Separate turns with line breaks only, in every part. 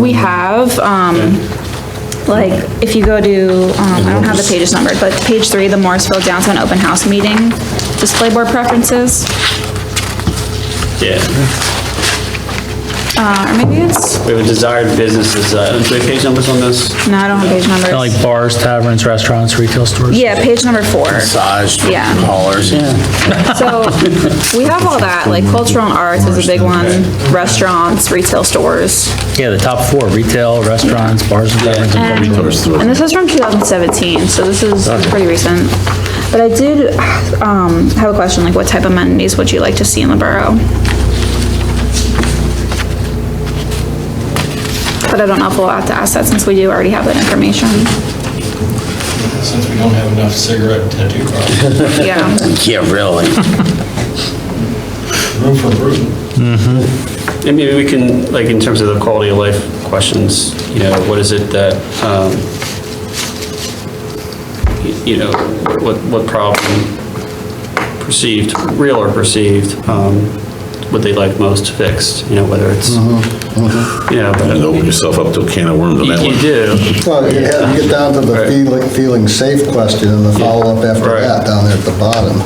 we have, um, like, if you go to, um, I don't have the pages numbered, but page three, the Morrisville Downtown Open House Meeting, display board preferences,
Yeah,
uh, or maybe it's,
we have desired businesses, uh, do we have page numbers on this?
no, I don't have page numbers.
Kinda Like bars, taverns, restaurants, retail stores?
Yeah, page number four.
massage
Yeah.
parlors.
So, we have all that, like cultural and arts is a big one, restaurants, retail stores.
Yeah, the top four, retail, restaurants, bars and taverns. and bars.
And this is from 2017, so this is pretty recent. But I did, um, have a question, like what type of amenities would you like to see in the borough? But I don't know if we'll have to ask that since we do already have that information.
since we don't have enough cigarette tattoo parlors,
Yeah,
Yeah, really.
room for improvement.
And maybe we can, like, in terms of the quality of life questions, you know, what is it that, um, y- you know, what, what problem perceived, real or perceived, um, would they like most fixed, you know, whether it's, you know, but-
You open yourself up to a can of worms on that
you
one.
you do,
Well, you have- you get down to the
Right.
feeling, feeling safe question and the follow-up after
Right.
that down there at the bottom.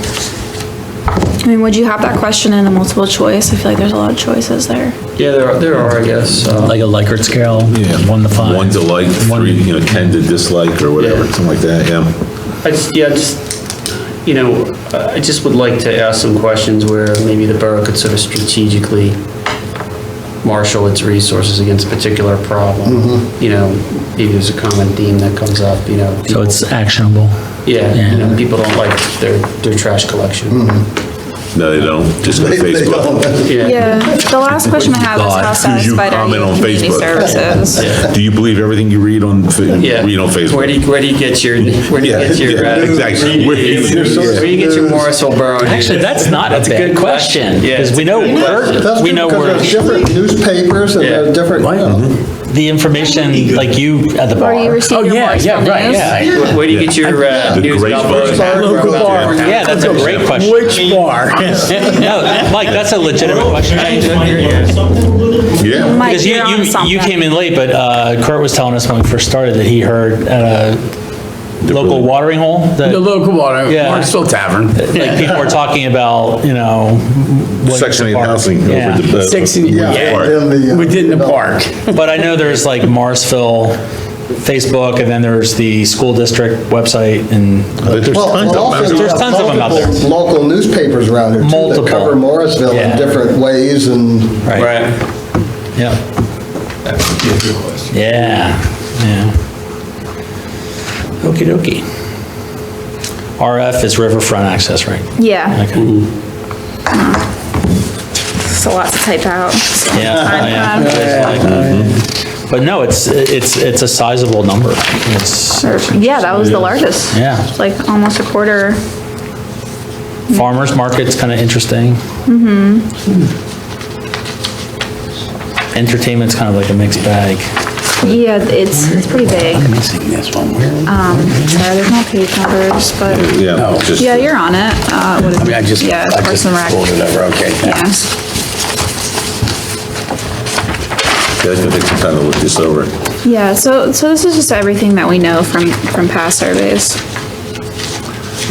I mean, would you have that question in the multiple choice? I feel like there's a lot of choices there.
yeah, there are, there are, I guess, um,
Like a Likert scale, one to five.
One to like, three, you know, 10 to dislike or whatever,
Yeah.
something like that, yeah.
I just, yeah, just, you know, I just would like to ask some questions where maybe the borough could sort of strategically marshal its resources against a particular problem. You know, maybe there's a common theme that comes up, you know.
So
people-
it's actionable.
Yeah, you know, people don't like their, their trash collection.
No, they don't, just go to Facebook.
Yeah, the last question I have is
God,
how
as soon as you
satisfied are you
comment on
with community
Facebook.
services?
Do you believe everything you read on, fa-
Yeah.
read on
Where do
Facebook?
you, where do you get your, where do you
Yeah,
get your?
yeah,
uh,
exactly.
Where
Where-
do you get your Morrisville Borough? news?
Actually, that's not a
That's a
bad
good
question,
question. Yeah,
because
it's
we
a
know
good
we're,
That's
we know
because
we're,
there's different newspapers and
Yeah.
there's different, you know.
the information, like you at the bar.
Or you receive
Oh,
your
yeah, yeah,
voicemail
right,
news.
yeah.
Where- Where do you get your uh,
The
news
great
about?
bar.
Borough?
Local
About
bar.
Borough?
Yeah, that's a great question. Which bar? No, Mike, that's a legitimate question.
Yeah.
Mike,
Because you,
you're on
you, you
something.
came in late, but uh, Kurt was telling us when we first started that he heard at a local watering hole that
The local water,
Yeah.
Marksville Tavern.
like people were talking about, you know. what-
Section 8 housing over
Yeah.
the. uh,
Section-
the
yeah.
park.
in the, uh,
Within the park.
But I know there's like Marsville, Facebook, and then there's the school district website and
But There's
Well,
tons
and
of
also
them.
you
There's
have
tons of 'em out there.
multiple Local newspapers around here too
Multiple.
that cover Morrisville
Yeah.
in different ways and
Right.
Right.
Yeah. Yeah, yeah. Okey dokey. RF is riverfront access, right?
Yeah,
Okay.
it's a lot to type out.
Yeah,
Time,
yeah.
um,
Oh,
But no, it's, it's, it's a sizable number. It's
or- Yeah, that was the largest.
Yeah.
It's Like almost a quarter.
farmer's market's kind of interesting. Mm-hmm. Entertainment's kind of like a mixed bag.
Yeah, it's, it's pretty big. Missing this one. Um, sorry, there's no page numbers, but,
Yeah, just.
yeah, you're on it. Uh, what is
I mean, I just,
Yeah,
I
Parks
just
and Rec.
pulled it over, okay.
Yeah.
Yeah, I think it's time to look this over.
Yeah, so, so this is just everything that we know from, from past surveys.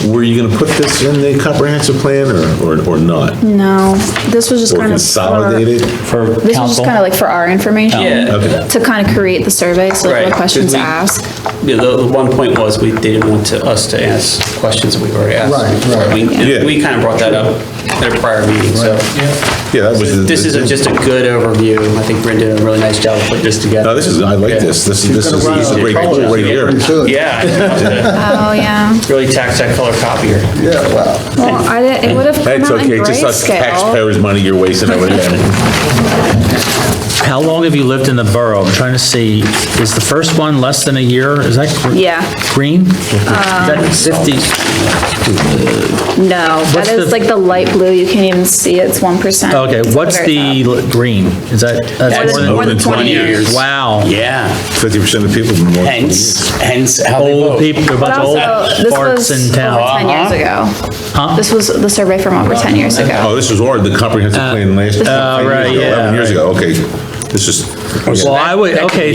Were you gonna put this in the comprehensive plan or, or or not?
Mm, No, this was just
Or
kind of. for-
consolidate it?
For council.
This was just kind of like for our information.
Yeah.
Okay.
To kind of create the survey, so like
Right,
what
'cause
questions to
we-
ask.
Yeah, the, the one point was, we, they didn't want to, us to ask questions that we've already asked.
Right, right.
We,
Yeah.
we kind of brought that up at a prior meeting, so.
Yeah, that was. the-
This is a- just a good overview, I think Brenda did a really nice job of putting this together.
No, this is, I like
Yeah.
this. This, this is this is a great, right here.
pretty soon.
Yeah, it's
Oh, yeah.
a really tax that color copier.
Yeah, wow.
Well, I didn't, it would have come
That's
out in
okay, just us
grayscale.
taxpayers' money you're wasting over there.
How long have you lived in the borough? I'm trying to see, is the first one less than a year? Is that gr-
Yeah,
green? Is
Um,
that 50?
no, that
What's
is
the-
like the light blue, you can't even see, it, it's 1%.
Okay, what's
Very
the l- green? Is that, that's
That's
more
More
than,
than 20 years.
wow.
Yeah,
Fifty percent of people. more-
hence, hence how they
Oh,
Old
vote.
people, there are a bunch
But
of old
also, this
farts
was
in
over
town.
10 years
Uh-huh.
ago. This was the survey from over 10 years ago.
Oh, this was or the comprehensive plan last.
Uh, right, yeah,
Eleven years ago, okay. This is.
Well, I would, okay,